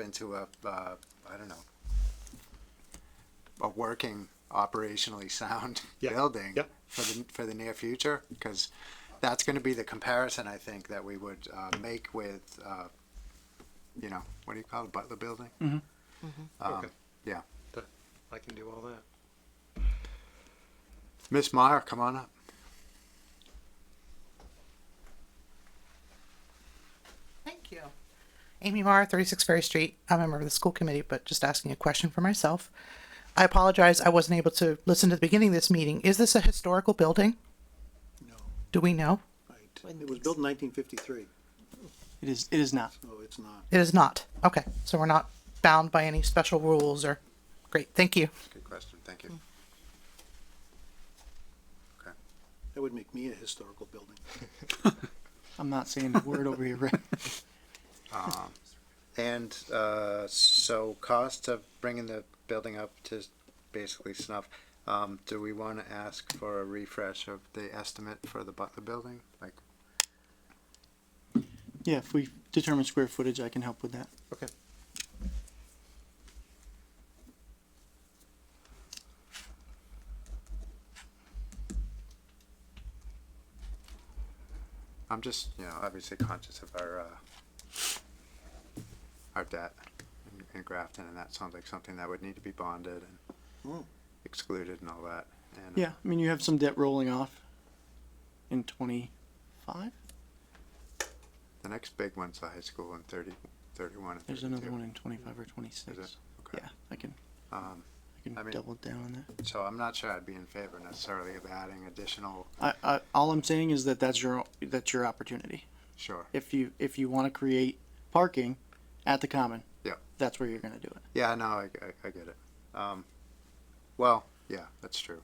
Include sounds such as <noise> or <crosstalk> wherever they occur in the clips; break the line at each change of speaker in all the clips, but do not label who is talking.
into a, uh, I don't know, a working, operationally <laughs> sound
Yeah,
building
yeah.
for the, for the near future, because that's gonna be the comparison, I think, that we would, uh, make with, uh, you know, what do you call it, Butler Building?
Mm-hmm.
Um,
Okay.
yeah.
Th- I can do all that.
Miss Meyer, come on up.
Thank you. Amy Marr, 36 Ferry Street. I'm a member of the school committee, but just asking a question for myself. I apologize, I wasn't able to listen to the beginning of this meeting. Is this a historical building?
No,
Do we know?
right. It was built in nineteen fifty-three.
It is. It is not.
No, it's not.
It is not. Okay, so we're not bound by any special rules or, great, thank you.
Good question, thank you.
That would make me a historical building.
I'm not saying the word over here, Rick.
And uh, so, cost of bringing the building up to basically snuff. Um, do we want to ask for a refresh of the estimate for the Butler building? Like,
Yeah, if we determine square footage, I can help with that.
Okay.
I'm just, you know, obviously conscious of our uh, our debt in, in Grafton, and that sounds like something that would need to be bonded and
Hmm.
excluded and all that. And uh,
Yeah, I mean you have some debt rolling off in 25.
the next big one's the high school in 30, 31 and
There's
32.
another one in 25 or
Is
26.
it? Okay.
Yeah, I can.
Um,
I can
I mean-
double down on that.
So I'm not sure I'd be in favor necessarily of adding additional.
I, I, all I'm saying is that that's your that's your opportunity.
Sure.
If you if you want to create parking at the common,
Yeah.
that's where you're gonna do it.
Yeah, no, I, I, I get it. Um, well, yeah, that's true.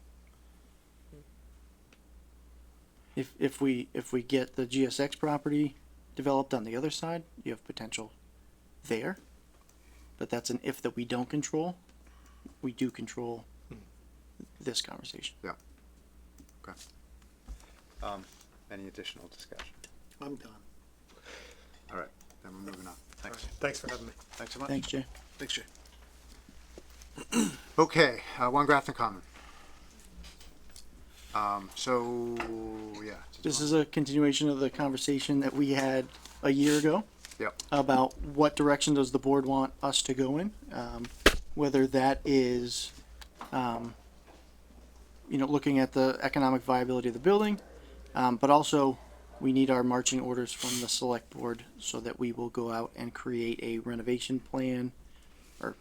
If if we if we get the GSX property developed on the other side, you have potential there. But that's an if that we don't control. We do control this conversation.
Um, any additional discussion?
I'm done.
All right, then we're moving on. Thanks.
Thanks for having me.
Thanks so much.
Thanks, Jay.
Thanks, Jay.
Okay, uh, one Grafton Common. Um, so, yeah.
This is a continuation of the conversation that we had a year ago.
Yep.
About what direction does the board want us to go in? Um, whether that is, um, you know, looking at the economic viability of the building, um, but also we need our marching orders from the select board so that we will go out and create a renovation plan or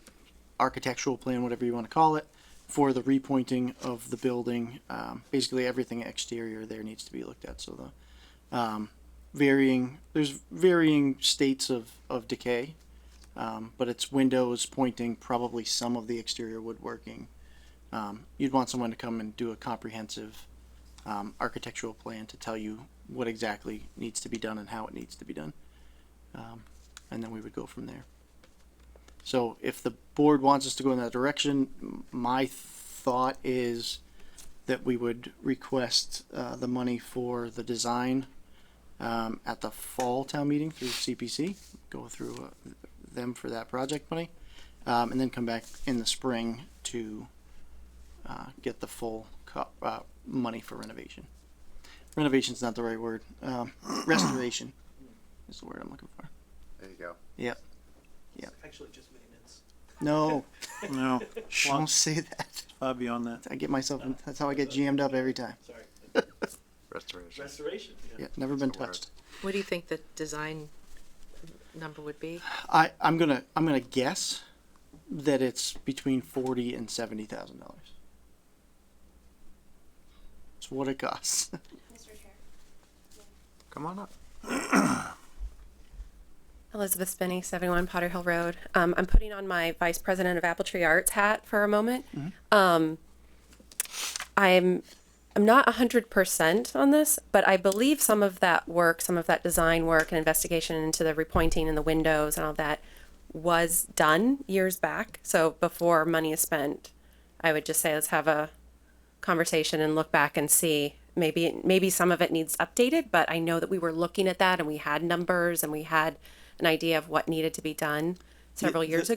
architectural plan, whatever you want to call it, for the repointing of the building. Um, basically, everything exterior there needs to be looked at. So the um, varying there's varying states of of decay, um, but it's windows pointing, probably some of the exterior woodworking. Um, you'd want someone to come and do a comprehensive um, architectural plan to tell you what exactly needs to be done and how it needs to be done, um, and then we would go from there. So if the board wants us to go in that direction, m- my thought is that we would request uh, the money for the design um, at the fall town meeting through CPC, go through uh, them for that project money, um, and then come back in the spring to uh, get the full co- uh, money for renovation. Renovation's not the right word. Um, <coughs> restoration is the word I'm looking for.
There you go.
Yep.
actually just maintenance.
No, <laughs>
No,
don't say that.
far beyond that.
I get myself. in- That's how I get jammed up every time.
Sorry,
Restoration.
restoration.
Yeah, never been
That's a word.
touched.
What do you think the design number would be?
I I'm gonna I'm gonna guess that it's between forty and seventy thousand dollars. It's what it costs.
Mr. Chair.
Come on up.
Elizabeth Spinney, 71 Potter Hill Road. Um, I'm putting on my Vice President of Apple Tree Arts hat for a moment. Um, I'm, I'm not 100% on this, but I believe some of that work, some of that design work and investigation into the repointing and the windows and all that was done years back. So before money is spent, I would just say let's have a conversation and look back and see maybe maybe some of it needs updated but i know that we were looking at that and we had numbers and we had an idea of what needed to be done several years ago.